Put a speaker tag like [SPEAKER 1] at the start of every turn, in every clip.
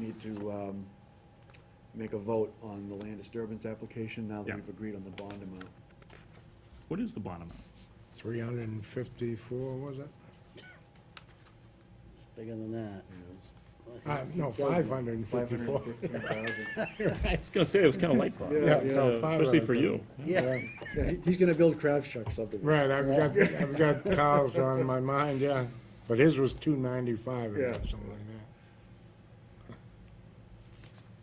[SPEAKER 1] need to um, make a vote on the land disturbance application now that
[SPEAKER 2] Yeah.
[SPEAKER 1] we've agreed on the bond amount.
[SPEAKER 2] What is the bond amount?
[SPEAKER 3] 354, was it?
[SPEAKER 4] It's bigger than that.
[SPEAKER 3] Uh, No, 554.
[SPEAKER 1] 515,000.
[SPEAKER 2] I was gonna say, it was kinda light, Bob.
[SPEAKER 1] Yeah,
[SPEAKER 3] yeah.
[SPEAKER 2] So, Especially for you.
[SPEAKER 4] Yeah,
[SPEAKER 1] Yeah, he- He's gonna build Crabshuck subdivision.
[SPEAKER 3] Right, I've got, I've got Kyle's on my mind, yeah, but his was 295 or
[SPEAKER 1] Yeah.
[SPEAKER 3] something like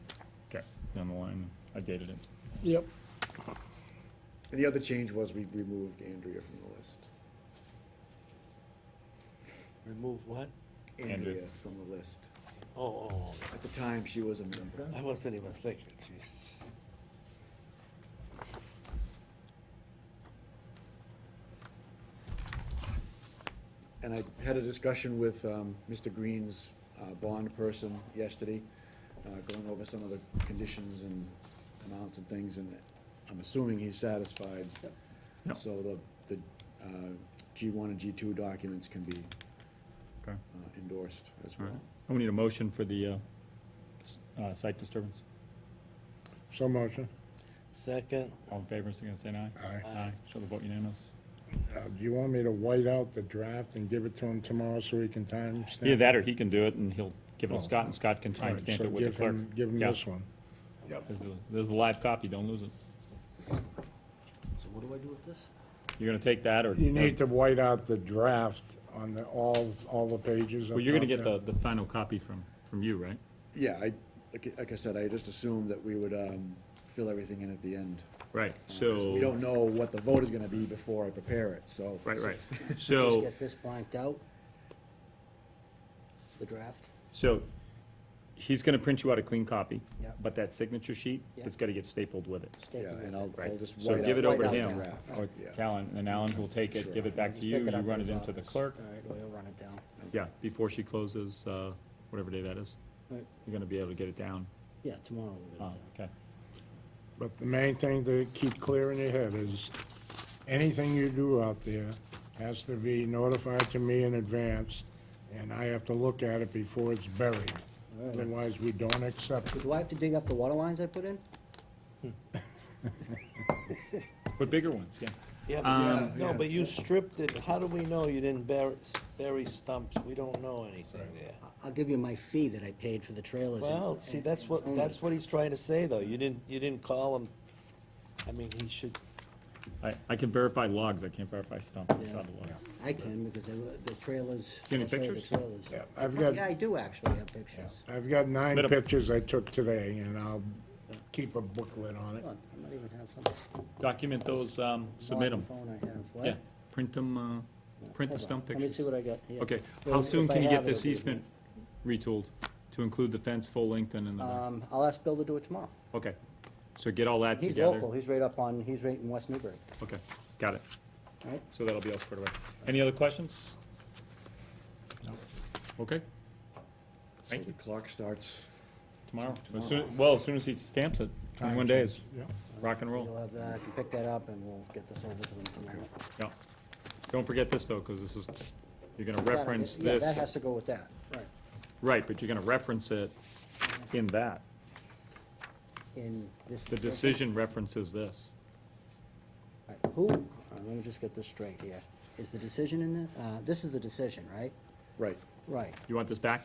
[SPEAKER 3] that.
[SPEAKER 2] Okay, down the line, I dated it.
[SPEAKER 3] Yep.
[SPEAKER 1] And the other change was we removed Andrea from the list.
[SPEAKER 4] remove what?
[SPEAKER 2] Andrea.
[SPEAKER 1] Andrea from the list.
[SPEAKER 4] Oh, oh,
[SPEAKER 1] At the time, she was a member.
[SPEAKER 4] oh, I wasn't even thinking, jeez.
[SPEAKER 1] And I had a discussion with um, Mr. Green's uh, bond person yesterday, uh, going over some of the conditions and amounts and things, and I'm assuming he's satisfied.
[SPEAKER 2] Yep.
[SPEAKER 1] So the, the G one and G two documents can be
[SPEAKER 2] Okay,
[SPEAKER 1] uh, endorsed as
[SPEAKER 2] all
[SPEAKER 1] well.
[SPEAKER 2] right. And we need a motion for the, uh, s- uh, site disturbance.
[SPEAKER 3] So motion.
[SPEAKER 4] Second,
[SPEAKER 2] All in favor, so you can say aye?
[SPEAKER 3] Aye.
[SPEAKER 2] Aye, show the vote unanimous.
[SPEAKER 3] Uh, Do you want me to white out the draft and give it to him tomorrow so he can timestamp?
[SPEAKER 2] Either that or he can do it and he'll give it to
[SPEAKER 3] Oh.
[SPEAKER 2] Scott and Scott can
[SPEAKER 3] All right,
[SPEAKER 2] timestamp
[SPEAKER 3] so
[SPEAKER 2] it with the
[SPEAKER 3] give him-
[SPEAKER 2] clerk.
[SPEAKER 3] Give him
[SPEAKER 2] Yeah.
[SPEAKER 3] this one.
[SPEAKER 2] There's the- There's the live copy, don't lose it.
[SPEAKER 4] so what do I do with this?
[SPEAKER 2] You're gonna take that or?
[SPEAKER 3] You need to white out the draft on the, all, all the pages.
[SPEAKER 2] Well, you're gonna get the,
[SPEAKER 3] up
[SPEAKER 2] the final copy from, from you, right?
[SPEAKER 1] Yeah, I, like, like I said, I just assumed that we would um, fill everything in at the end.
[SPEAKER 2] Right,
[SPEAKER 1] We don't know what the vote is gonna be before I prepare it, so.
[SPEAKER 2] Right, right.
[SPEAKER 4] Just
[SPEAKER 2] So,
[SPEAKER 4] get this blanked out? The draft?
[SPEAKER 2] so he's gonna print you out a clean copy.
[SPEAKER 4] Yeah.
[SPEAKER 2] But that signature sheet,
[SPEAKER 4] Yeah.
[SPEAKER 2] it's gotta get stapled with it.
[SPEAKER 4] Stay
[SPEAKER 1] Yeah,
[SPEAKER 4] with
[SPEAKER 1] and
[SPEAKER 4] it.
[SPEAKER 1] I'll, I'll
[SPEAKER 2] Right,
[SPEAKER 1] just
[SPEAKER 2] so
[SPEAKER 1] white
[SPEAKER 2] give
[SPEAKER 1] out-
[SPEAKER 2] it over to
[SPEAKER 1] white out
[SPEAKER 2] him,
[SPEAKER 1] the draft.
[SPEAKER 2] or
[SPEAKER 1] Yeah.
[SPEAKER 2] Callan, and Alan will take it, give it back to
[SPEAKER 4] Just
[SPEAKER 2] you,
[SPEAKER 4] pick
[SPEAKER 2] you
[SPEAKER 4] up
[SPEAKER 2] run
[SPEAKER 4] in
[SPEAKER 2] it
[SPEAKER 4] his
[SPEAKER 2] into the
[SPEAKER 4] office.
[SPEAKER 2] clerk.
[SPEAKER 4] All right, well, he'll run it down.
[SPEAKER 2] Yeah, before she closes, uh, whatever day that is,
[SPEAKER 4] Right.
[SPEAKER 2] you're gonna be able to get it down.
[SPEAKER 4] Yeah, tomorrow we'll
[SPEAKER 2] Oh,
[SPEAKER 4] get it
[SPEAKER 2] okay.
[SPEAKER 3] But the main thing to keep clear in your head is, anything you do out there has to be notified to me in advance, and I have to look at it before it's buried. Otherwise, we don't accept
[SPEAKER 4] down.
[SPEAKER 3] it.
[SPEAKER 4] Do I have to dig up the water lines I put in?
[SPEAKER 2] But bigger ones, yeah.
[SPEAKER 5] Yeah, but you- no, but you stripped it, how do we know you didn't bury, bury stumps? We don't know anything there.
[SPEAKER 4] I- I'll give you my fee that I paid for the trailers. and-
[SPEAKER 5] Well, see,
[SPEAKER 4] and-
[SPEAKER 5] that's what,
[SPEAKER 4] and-
[SPEAKER 5] that's what he's trying to say, though, you didn't, you didn't call him, I mean, he should,
[SPEAKER 2] I, I can verify logs, I can't verify stumps, I saw the logs.
[SPEAKER 4] I can, because they were, the trailers.
[SPEAKER 2] You got any
[SPEAKER 4] I'll show you the
[SPEAKER 2] pictures?
[SPEAKER 4] trailers. Oh,
[SPEAKER 3] Yeah, I've got-
[SPEAKER 4] Yeah, I do actually have pictures.
[SPEAKER 3] I've got nine
[SPEAKER 2] Submit 'em.
[SPEAKER 3] pictures I took today, and I'll keep a booklet on it.
[SPEAKER 4] Look, I might even have some.
[SPEAKER 2] Document those, um, submit them,
[SPEAKER 4] Phone I have, what?
[SPEAKER 2] yeah, print them, uh, print the
[SPEAKER 4] Hold on,
[SPEAKER 2] stump
[SPEAKER 4] Let me
[SPEAKER 2] pictures.
[SPEAKER 4] see what I got here.
[SPEAKER 2] Okay,
[SPEAKER 4] Well,
[SPEAKER 2] how
[SPEAKER 4] if
[SPEAKER 2] soon
[SPEAKER 4] I
[SPEAKER 2] can you
[SPEAKER 4] have
[SPEAKER 2] get
[SPEAKER 4] it,
[SPEAKER 2] this
[SPEAKER 4] it'll be-
[SPEAKER 2] easement retooled to include the fence full length and in the back?
[SPEAKER 4] Um, I'll ask Bill to do it tomorrow.
[SPEAKER 2] Okay, so get all that
[SPEAKER 4] He's
[SPEAKER 2] together.
[SPEAKER 4] local, he's right up on, he's right in West Newbury,
[SPEAKER 2] Okay, got it.
[SPEAKER 4] all right?
[SPEAKER 2] So that'll be all squared away. Any other questions? Okay,
[SPEAKER 1] So the clock starts.
[SPEAKER 2] tomorrow. As soon- Well, as soon as he stamps it, twenty-one days,
[SPEAKER 3] Yeah.
[SPEAKER 2] rock and
[SPEAKER 4] You'll
[SPEAKER 2] roll.
[SPEAKER 4] have that, I can pick that up and we'll get this over to him tomorrow.
[SPEAKER 2] Yeah. Don't forget this, though, because this is, you're gonna
[SPEAKER 4] That-
[SPEAKER 2] reference
[SPEAKER 4] Yeah, that has
[SPEAKER 2] this.
[SPEAKER 4] to go with that, right,
[SPEAKER 2] Right, but you're gonna reference it in that.
[SPEAKER 4] in this
[SPEAKER 2] The decision references this.
[SPEAKER 4] All right, Who, all right, let me just get this straight here. Is the decision in the, uh, this is the decision, right?
[SPEAKER 1] Right.
[SPEAKER 4] Right.
[SPEAKER 2] You want this back?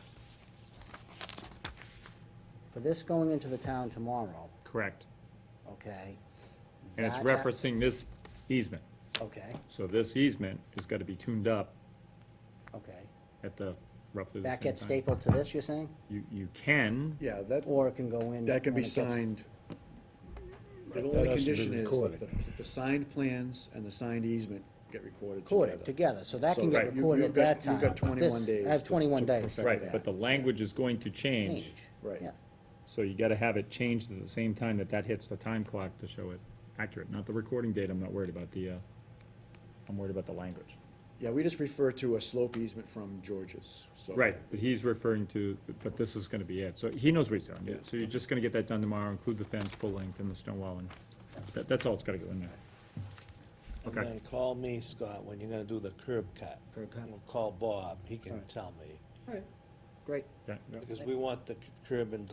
[SPEAKER 4] For this going into the town tomorrow,
[SPEAKER 2] Correct.
[SPEAKER 4] okay?
[SPEAKER 2] And it's
[SPEAKER 4] that-
[SPEAKER 2] referencing this easement.
[SPEAKER 4] Okay,
[SPEAKER 2] So this easement is gonna be tuned up
[SPEAKER 4] okay.
[SPEAKER 2] at the roughly the same
[SPEAKER 4] That
[SPEAKER 2] time.
[SPEAKER 4] gets stapled to this, you're saying?
[SPEAKER 2] You, you can,
[SPEAKER 1] Yeah, that,
[SPEAKER 4] Or it can go in?
[SPEAKER 1] that can
[SPEAKER 4] when
[SPEAKER 1] be
[SPEAKER 4] it gets-
[SPEAKER 1] signed. The
[SPEAKER 3] That
[SPEAKER 1] only
[SPEAKER 3] has to be
[SPEAKER 1] condition is that
[SPEAKER 3] recorded.
[SPEAKER 1] the, the signed plans and the signed easement get recorded together.
[SPEAKER 4] Recorded together, so that
[SPEAKER 1] So
[SPEAKER 4] can get
[SPEAKER 2] Right.
[SPEAKER 1] you-
[SPEAKER 4] recorded at
[SPEAKER 1] you've got-
[SPEAKER 4] that time.
[SPEAKER 1] You've got
[SPEAKER 4] but this-
[SPEAKER 1] twenty-one days.
[SPEAKER 4] I have
[SPEAKER 1] to-
[SPEAKER 4] twenty-one
[SPEAKER 1] to
[SPEAKER 4] days.
[SPEAKER 1] perfect
[SPEAKER 2] right,
[SPEAKER 1] that.
[SPEAKER 2] but the language is going to change,
[SPEAKER 4] Change.
[SPEAKER 1] Right.
[SPEAKER 4] Yeah.
[SPEAKER 2] so you gotta have it changed at the same time that that hits the time clock to show it accurate, not the recording date, I'm not worried about the, uh, I'm worried about the language.
[SPEAKER 1] Yeah, we just refer to a slope easement from George's, so.
[SPEAKER 2] Right, but he's referring to, but this is gonna be it, so he knows what he's doing,
[SPEAKER 1] Yeah.
[SPEAKER 2] so you're just gonna get that done tomorrow, include the fence full length and the stone wall, and that, that's all it's gotta go in there.
[SPEAKER 5] and
[SPEAKER 2] Okay.
[SPEAKER 5] then call me, Scott, when you're gonna do the curb cut.
[SPEAKER 4] Curb cut.
[SPEAKER 5] We'll Call Bob, he can tell me,
[SPEAKER 4] Great.
[SPEAKER 2] Okay?
[SPEAKER 5] because we want the curb and